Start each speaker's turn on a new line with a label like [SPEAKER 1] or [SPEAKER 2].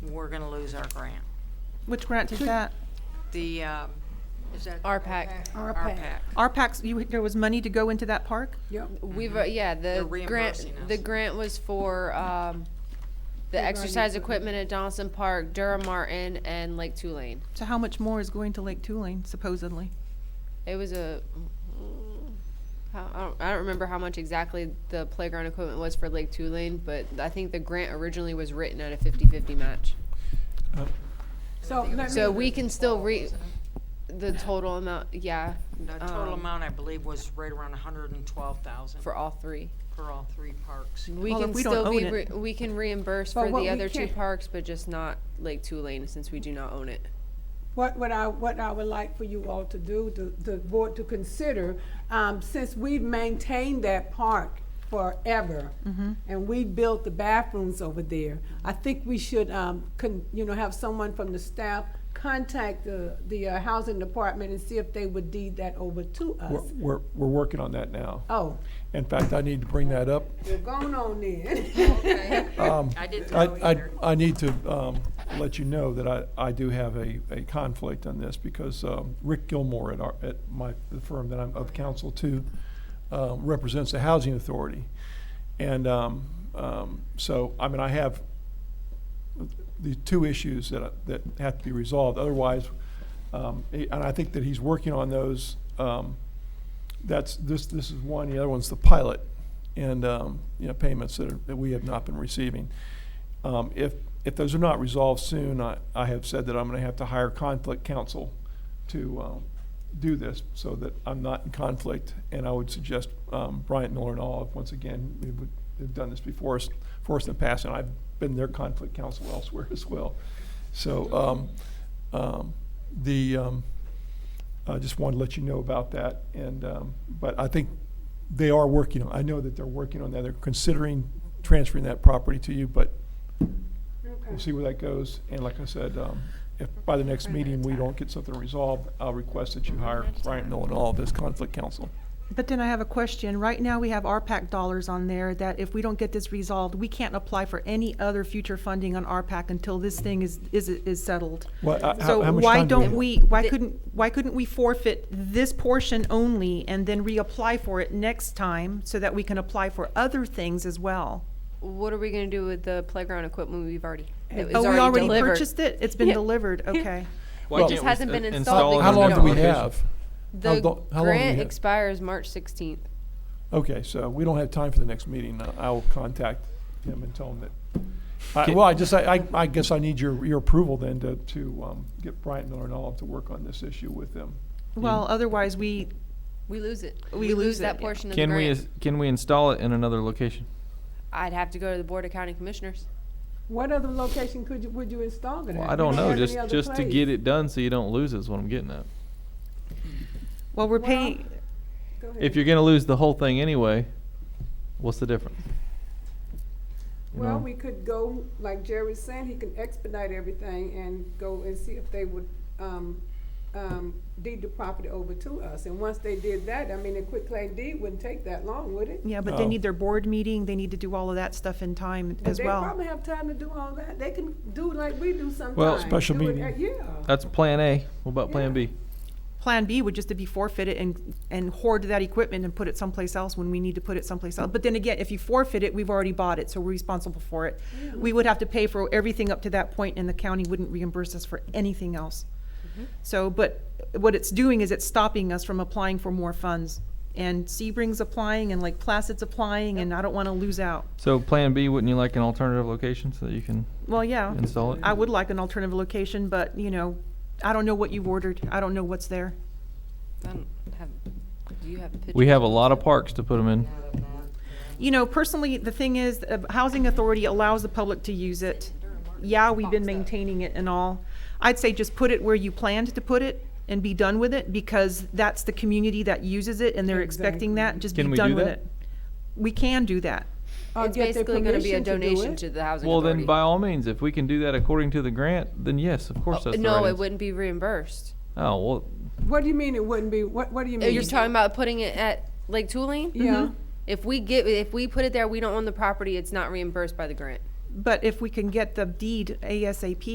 [SPEAKER 1] we're gonna lose our grant.
[SPEAKER 2] Which grant is that?
[SPEAKER 1] The, um, is that?
[SPEAKER 3] RPAC.
[SPEAKER 4] Our
[SPEAKER 1] RPAC.
[SPEAKER 2] Our packs, you, there was money to go into that park?
[SPEAKER 3] We've, uh, yeah, the
[SPEAKER 1] Mm-hmm. They're
[SPEAKER 3] grant,
[SPEAKER 1] reimbursing
[SPEAKER 3] the
[SPEAKER 1] us.
[SPEAKER 3] grant was for, um, the exercise equipment at Donaldson Park, Durham Martin, and Lake Tulane.
[SPEAKER 2] So how much more is going to Lake Tulane supposedly?
[SPEAKER 3] It was a, how- I don't, I don't remember how much exactly the playground equipment was for Lake Tulane, but I think the grant originally was written at a fifty-fifty match.
[SPEAKER 4] So let
[SPEAKER 3] So
[SPEAKER 4] me,
[SPEAKER 3] we can still re, the total amount, yeah,
[SPEAKER 1] The total
[SPEAKER 3] Um,
[SPEAKER 1] amount, I believe, was right around a hundred and twelve thousand
[SPEAKER 3] for all three.
[SPEAKER 1] for all three parks.
[SPEAKER 3] We
[SPEAKER 2] Well, if
[SPEAKER 3] can
[SPEAKER 2] we don't
[SPEAKER 3] still be,
[SPEAKER 2] own
[SPEAKER 3] re-
[SPEAKER 2] it-
[SPEAKER 3] we can reimburse
[SPEAKER 4] But
[SPEAKER 3] for
[SPEAKER 4] what
[SPEAKER 3] the
[SPEAKER 4] we
[SPEAKER 3] other two
[SPEAKER 4] can't-
[SPEAKER 3] parks, but just not Lake Tulane, since we do not own it.
[SPEAKER 4] what, what I, what I would like for you all to do, the, the board to consider, um, since we've maintained that park forever, and we built the bathrooms over there, I think we should, um, con, you know, have someone from the staff contact the, the uh, housing department and see if they would deed that over to
[SPEAKER 5] We're,
[SPEAKER 4] us.
[SPEAKER 5] we're, we're working on that now.
[SPEAKER 4] Oh,
[SPEAKER 5] In fact, I need to bring that up.
[SPEAKER 4] you're going on then.
[SPEAKER 1] I
[SPEAKER 3] Oh,
[SPEAKER 1] didn't
[SPEAKER 5] I,
[SPEAKER 1] know
[SPEAKER 5] I,
[SPEAKER 1] either.
[SPEAKER 5] I need to, um, let you know that I, I do have a, a conflict on this because, um, Rick Gilmore at our, at my, the firm that I'm of counsel to, um, represents the Housing Authority. And, um, um, so, I mean, I have the two issues that, I- that have to be resolved. Otherwise, um, he- and I think that he's working on those, um, that's, this, this is one, the other one's the pilot, and, um, you know, payments that are, that we have not been receiving. Um, if, if those are not resolved soon, I, I have said that I'm gonna have to hire conflict counsel to, um, do this, so that I'm not in conflict, and I would suggest, um, Bryant Miller and all, once again, we would, they've done this before us, for us in the past, and I've been their conflict counsel elsewhere as well. So, um, um, the, um, I just wanted to let you know about that, and, um, but I think they are working on, I know that they're working on that, they're considering transferring that property to you, but we'll see where that goes, and like I said, um, if by the next meeting we don't get something resolved, I'll request that you hire Bryant Nolan and all of his conflict counsel.
[SPEAKER 2] But then I have a question. Right now, we have RPAC dollars on there that if we don't get this resolved, we can't apply for any other future funding on RPAC until this thing is, is, is settled.
[SPEAKER 5] Well, I- how-
[SPEAKER 2] So
[SPEAKER 5] how much
[SPEAKER 2] why
[SPEAKER 5] time do we
[SPEAKER 2] don't
[SPEAKER 5] have?
[SPEAKER 2] we, why
[SPEAKER 3] The-
[SPEAKER 2] couldn't, why couldn't we forfeit this portion only and then reapply for it next time so that we can apply for other things as well?
[SPEAKER 3] What are we gonna do with the playground equipment we've already, that was
[SPEAKER 2] Oh, we already
[SPEAKER 3] delivered?
[SPEAKER 2] purchased it? It's been
[SPEAKER 3] Yeah.
[SPEAKER 2] delivered, okay.
[SPEAKER 3] It just hasn't
[SPEAKER 6] uh,
[SPEAKER 3] been installed
[SPEAKER 5] How
[SPEAKER 3] because
[SPEAKER 5] long
[SPEAKER 3] we
[SPEAKER 5] do we
[SPEAKER 3] don't own it.
[SPEAKER 5] have? How
[SPEAKER 3] The
[SPEAKER 5] lo- how long do we
[SPEAKER 3] grant
[SPEAKER 5] have?
[SPEAKER 3] expires March sixteenth.
[SPEAKER 5] Okay, so we don't have time for the next meeting, I- I'll contact him and tell him that. I- Well, I just, I, I- I guess I need your, your approval then to, to um, get Bryant Miller and all to work on this issue with them.
[SPEAKER 2] Well, otherwise, we,
[SPEAKER 3] We lose it.
[SPEAKER 2] We
[SPEAKER 3] We
[SPEAKER 2] lose
[SPEAKER 3] lose that
[SPEAKER 2] it, yeah.
[SPEAKER 3] portion of the
[SPEAKER 6] Can we,
[SPEAKER 3] grant.
[SPEAKER 6] is- can we install it in another location?
[SPEAKER 3] I'd have to go to the Board of County Commissioners.
[SPEAKER 4] What other location could you, would you install it at?
[SPEAKER 6] Well, I
[SPEAKER 4] We
[SPEAKER 6] don't know,
[SPEAKER 4] have any
[SPEAKER 6] just,
[SPEAKER 4] other
[SPEAKER 6] just to
[SPEAKER 4] place.
[SPEAKER 6] get it done so you don't lose it is what I'm getting at.
[SPEAKER 2] well, we're
[SPEAKER 4] Well,
[SPEAKER 2] paying,
[SPEAKER 4] Go ahead.
[SPEAKER 6] If you're gonna lose the whole thing anyway, what's the difference? You
[SPEAKER 4] Well,
[SPEAKER 6] know?
[SPEAKER 4] we could go, like Jerry's saying, he can expedite everything and go and see if they would, um, um, deed the property over to us. And once they did that, I mean, a quick claim deed wouldn't take that long, would it?
[SPEAKER 2] yeah, but they
[SPEAKER 5] No.
[SPEAKER 2] need their board meeting, they need to do all of that stuff in time
[SPEAKER 4] But
[SPEAKER 2] as well.
[SPEAKER 4] They probably have time to do all that. They can do like we do sometimes.
[SPEAKER 5] special
[SPEAKER 4] Do it
[SPEAKER 5] meeting.
[SPEAKER 4] at- Yeah.
[SPEAKER 6] That's plan A. What about plan
[SPEAKER 4] Yeah.
[SPEAKER 6] B?
[SPEAKER 2] Plan B would just to be forfeited and, and hoard that equipment and put it someplace else when we need to put it someplace else. But then again, if you forfeit it, we've already bought it, so we're responsible for it.
[SPEAKER 4] Mm-hmm.
[SPEAKER 2] We would have to pay for everything up to that point, and the county wouldn't reimburse us for anything else.
[SPEAKER 4] Mm-hmm.
[SPEAKER 2] So, but what it's doing is it's stopping us from applying for more funds. And Sebring's applying, and like Placid's applying, and I don't wanna lose out.
[SPEAKER 6] So plan B, wouldn't you like an alternative location so that you can
[SPEAKER 2] Well, yeah,
[SPEAKER 6] install it?
[SPEAKER 2] I would like an alternative location, but, you know, I don't know what you've ordered, I don't know what's there.
[SPEAKER 3] I don't have, do you have pictures?
[SPEAKER 6] We have a lot of parks to put them in.
[SPEAKER 2] You know, personally, the thing is, the housing authority allows the public to use it. Yeah, we've been maintaining it and all. I'd say just put it where you planned to put it and be done with it, because that's the community that uses it and they're expecting that, just be
[SPEAKER 6] Can we
[SPEAKER 2] done
[SPEAKER 6] do
[SPEAKER 2] with
[SPEAKER 6] that?
[SPEAKER 2] it. We can do that.
[SPEAKER 4] Or
[SPEAKER 3] It's
[SPEAKER 4] get their
[SPEAKER 3] basically gonna be a
[SPEAKER 4] permission to do
[SPEAKER 3] donation
[SPEAKER 4] it.
[SPEAKER 3] to the housing
[SPEAKER 6] Well,
[SPEAKER 3] authority.
[SPEAKER 6] then by all means, if we can do that according to the grant, then yes, of course that's the right
[SPEAKER 3] Oh, No, it
[SPEAKER 6] answer.
[SPEAKER 3] wouldn't be reimbursed.
[SPEAKER 6] Oh, well,
[SPEAKER 4] What do you mean it wouldn't be? What, what do you mean?
[SPEAKER 3] You're talking about putting it at Lake Tulane?
[SPEAKER 4] Yeah.
[SPEAKER 3] If we get, if we put it there, we don't own the property, it's not reimbursed by the grant.
[SPEAKER 2] But if we can get the deed ASAP,